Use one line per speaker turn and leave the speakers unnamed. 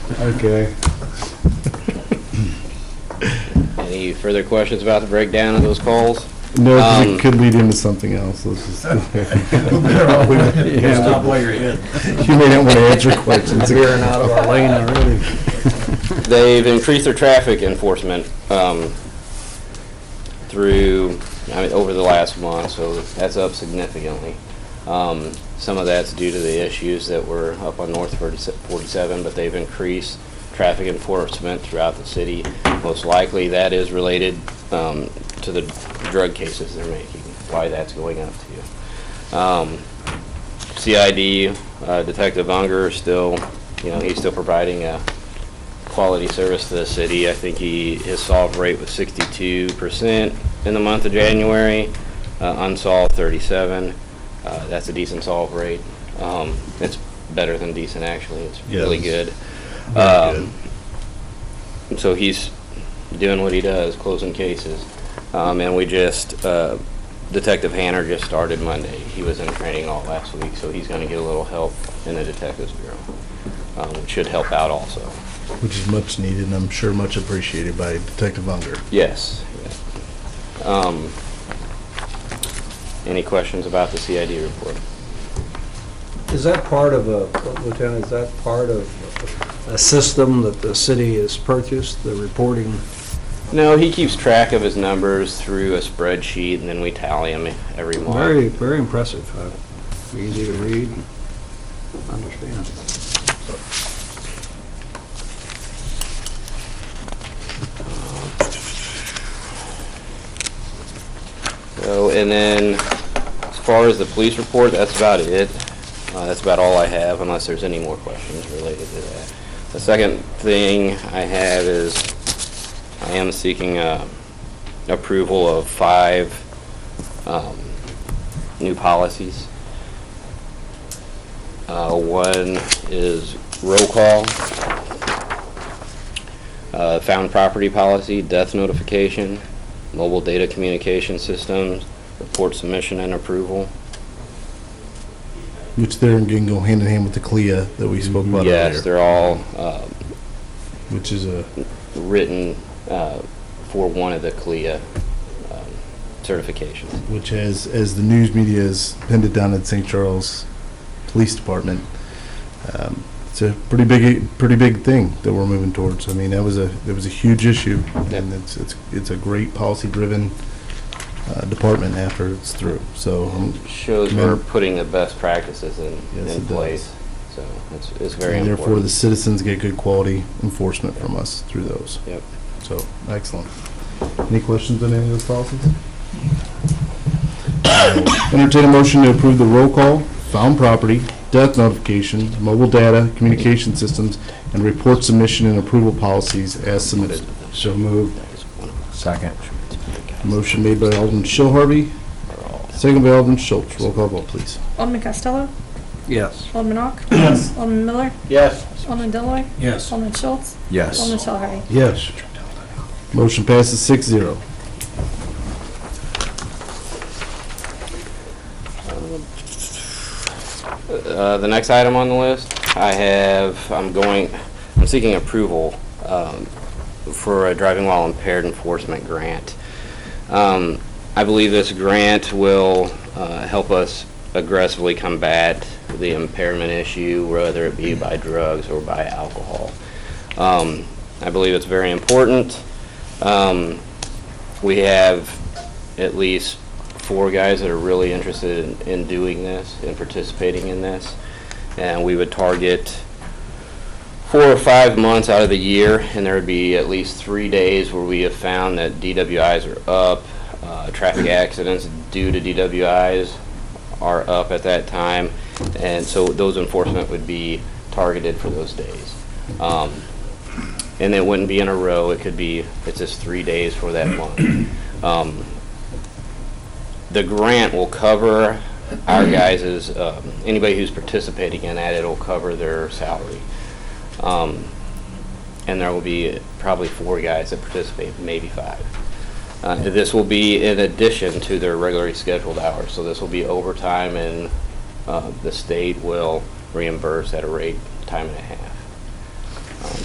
Okay.
Any further questions about the breakdown of those calls?
No, 'cause
Um,
it could lead into something else. Let's just. Yeah.
Stop while you're ahead.
You may not want to answer questions.
Veering out of our lane already.
They've increased their traffic enforcement um, through, I mean, over the last month, so that's up significantly. Um, Some of that's due to the issues that were up on North 47, but they've increased traffic enforcement throughout the city. Most likely, that is related um, to the drug cases they're making, why that's going up too. Um, CID, uh, Detective Unger is still, you know, he's still providing a quality service to the city. I think he, his solve rate was sixty-two percent in the month of January, uh, unsolved thirty-seven. Uh, that's a decent solve rate. Um, it's better than decent, actually. It's really good. Um, so he's doing what he does, closing cases. Um, and we just, uh, Detective Hanner just started Monday. He was in training all last week, so he's gonna get a little help in the Detectives Bureau, um, which should help out also.
Which is much needed and I'm sure much appreciated by Detective Unger.
Yes. Um, Any questions about the CID report?
Is that part of a, Lieutenant, is that part of a system that the city has purchased, the reporting?
No, he keeps track of his numbers through a spreadsheet, and then we tally them every month.
Very, very impressive. Uh, Easy to read, and understand.
So, and then, as far as the police report, that's about it. Uh, That's about all I have, unless there's any more questions related to that. The second thing I have is, I am seeking uh, approval of five um, new policies. Uh, One is roll call, uh, found property policy, death notification, mobile data communication systems, report submission and approval.
Which they're going to go hand in hand with the CLIA that we spoke about
Yes,
earlier.
they're all uh,
Which is a,
written uh, for one of the CLIA um, certifications.
which has, as the news media has pinned it down at St. Charles Police Department, um, it's a pretty big, pretty big thing that we're moving towards. I mean, that was a, that was a huge issue and it's, it's, it's a great policy-driven uh, department after it's through. So um,
Shows we're putting the best practices in,
Yes,
in
it
place. So it's, it's very
and therefore, the
important.
citizens get good quality enforcement from us through those.
Yep.
So, excellent. Any questions on any of those policies? Entertain a motion to approve the roll call, found property, death notification, mobile data, communication systems, and report submission and approval policies as submitted.
So moved. Second.
Motion made by Alderman Shell Harvey, second by Alderman Schultz. Roll call vote, please.
Alderman Costello.
Yes.
Alderman Ock. Yes. Alderman Miller.
Yes.
Alderman Deloy.
Yes.
Alderman Schultz.
Yes.
Alderman Shell Harvey.
Yes.
Motion passes six zero.
Uh, The next item on the list, I have, I'm going, I'm seeking approval um, for a driving while impaired enforcement grant. Um, I believe this grant will uh, help us aggressively combat the impairment issue, whether it be by drugs or by alcohol. Um, I believe it's very important. Um, We have at least four guys that are really interested in, in doing this and participating in this. And we would target four or five months out of the year, and there would be at least three days where we have found that DWIs are up, uh, traffic accidents due to DWIs are up at that time, and so those enforcement would be targeted for those days. Um, and it wouldn't be in a row, it could be, it's just three days for that month. Um, the grant will cover our guys' um anybody who's participating in that, it'll cover their salary. Um, and there will be probably four guys that participate, maybe five. Uh, this will be in addition to their regularly scheduled hours, so this will be overtime and, uh, the state will reimburse at a rate, time and a half.